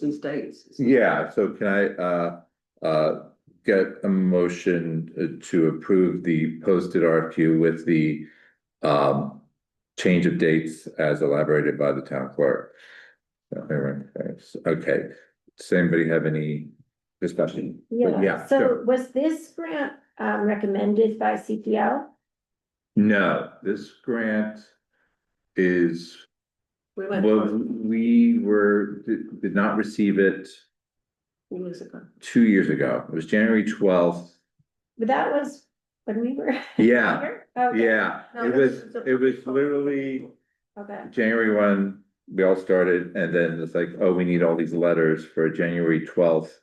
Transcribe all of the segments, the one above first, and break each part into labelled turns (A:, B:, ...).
A: these days.
B: Yeah, so can I, uh, uh, get a motion uh, to approve the posted RFQ with the, um, change of dates as elaborated by the town clerk? Okay, right, thanks. Okay, does anybody have any discussion?
C: Yeah,
B: Yeah,
C: so
B: sure.
C: was this grant um recommended by CPL?
B: No, this grant is,
A: We went
B: well,
A: for
B: we were, did, did not receive it
A: two years ago.
B: two years ago. It was January twelfth.
C: But that was when we were.
B: Yeah.
C: here?
A: Oh,
C: Okay,
B: Yeah,
A: No,
B: it
A: this
B: was,
A: is a-
B: it was literally
C: Okay,
B: January one, we all started, and then it's like, oh, we need all these letters for a January twelfth.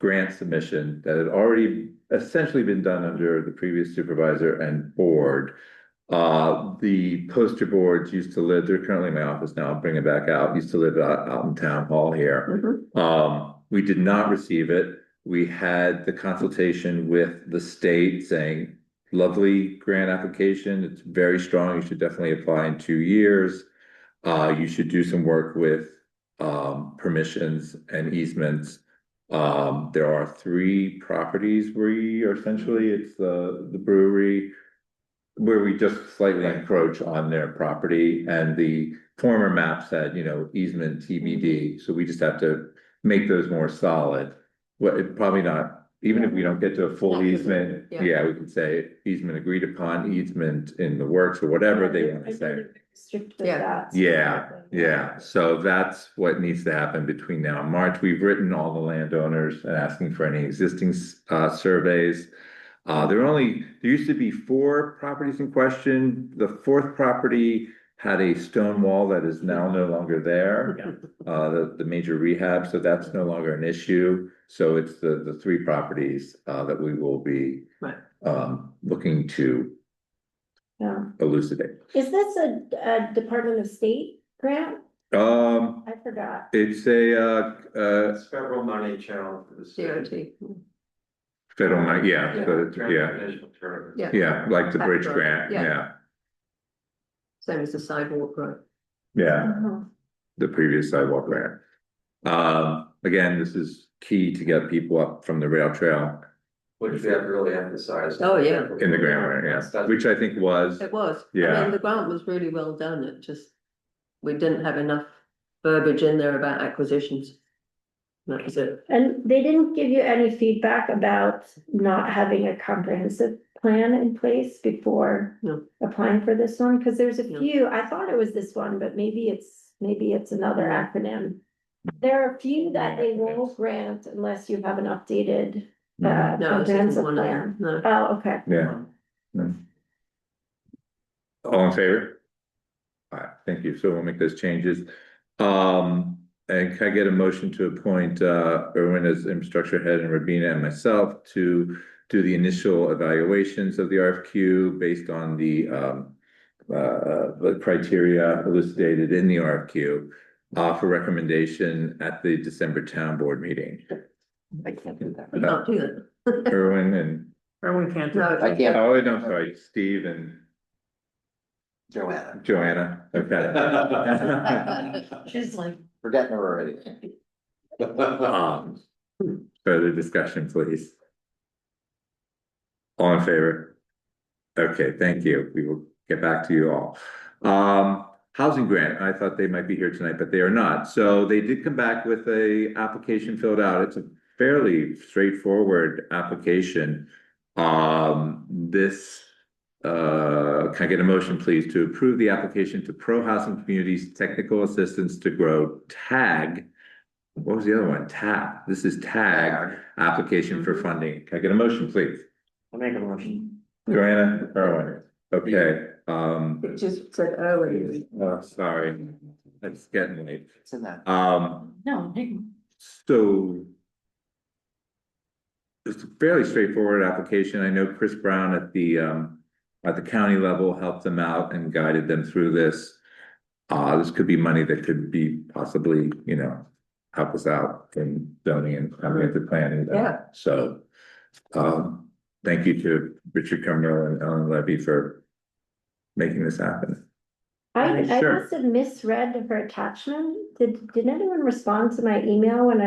B: Grant submission that had already essentially been done under the previous supervisor and board. Uh, the poster boards used to live, they're currently in my office now, I'll bring it back out, used to live out, out in town hall here.
A: Mhm.
B: Um, we did not receive it. We had the consultation with the state saying, lovely grant application, it's very strong, you should definitely apply in two years. Uh, you should do some work with, um, permissions and easements. Um, there are three properties where you are essentially, it's the, the brewery. Where we just slightly encroach on their property and the former map said, you know, easement TBD, so we just have to make those more solid. Well, it probably not, even if we don't get to a full
A: Not really,
B: easement,
A: yeah.
B: yeah, we can say easement agreed upon, easement in the works or whatever they wanna
C: I
B: say.
C: really Strict with
A: Yeah.
C: that.
B: Yeah, Yeah, so that's what needs to happen between now and March. We've written all the landowners and asking for any existing uh surveys. Uh, there were only, there used to be four properties in question. The fourth property had a stone wall that is now no longer there. Uh, the the major rehab, so that's no longer an issue. So it's the the three properties uh that we will be
A: Right.
B: um looking to
C: Yeah.
B: elucidate.
C: Is this a a Department of State grant?
B: Um,
C: I forgot.
B: it's a uh uh
D: That's federal money channeled for the state.
A: CRT.
B: Federal, money, yeah,
A: Yeah.
B: so it's- yeah,
D: Transportation Tour.
A: Yeah.
B: yeah, like the bridge
A: Federal,
B: grant,
A: yeah.
B: yeah,
A: Same as the sidewalk, right?
B: yeah,
C: Mhm.
B: the previous sidewalk grant. Um, again, this is key to get people up from the rail trail
D: Which we have really emphasized.
A: Oh, yeah.
B: in the grant, yeah, which I think was,
A: It was. I
B: Yeah.
A: mean, the grant was really well done. It just, we didn't have enough verbiage in there about acquisitions. That was it.
C: And they didn't give you any feedback about not having a comprehensive plan in place before
A: No.
C: applying for this one, because there's a
A: No.
C: few, I thought it was this one, but maybe it's, maybe it's another acronym. There are a few that they won't grant unless you have an updated
B: Mm-hmm.
A: No,
C: uh
A: this isn't
C: comprehensive
A: one of
C: plan.
A: them. No.
C: Oh, okay.
B: mm, yeah. Mm. All in favor? All right, thank you, so we'll make those changes. Um, and can I get a motion to appoint, uh, Erwin as infrastructure head and Rabina and myself to do the initial evaluations of the RFQ based on the um. Uh, the criteria elucidated in the RFQ, uh, for recommendation at the December town board meeting.
A: I can't
B: do
A: do
B: that.
A: that. Not do that.
B: Erwin and.
E: Erwin Cantor.
A: No, I can't.
B: Oh, no, sorry, Steve and
E: Joanna.
B: Joanna, okay.
A: She's like.
E: We're getting her already.
B: Um, further discussion, please. All in favor? Okay, thank you. We will get back to you all. Um, housing grant, I thought they might be here tonight, but they are not. So they did come back with a application filled out. It's a fairly straightforward application. Um, this, uh, can I get a motion, please, to approve the application to Pro Housing Communities Technical Assistance to Grow TAG? What was the other one? TAG. This is TAG application for funding. Can I get a motion, please?
E: I'll make a motion.
B: Joanna Irwin. Okay, um,
A: It just said earlier.
B: oh, sorry, it's getting late.
E: It's in that.
B: Um,
C: No.
B: so. It's a fairly straightforward application. I know Chris Brown at the, um, at the county level helped them out and guided them through this. Uh, this could be money that could be possibly, you know, help us out in zoning and comprehensive planning.
A: Yeah.
B: So, um, thank you to Richard Cumberland and Ellen Levy for making this happen.
C: I, I
B: Sure.
C: must have misread her attachment. Did, did anyone respond to my email when I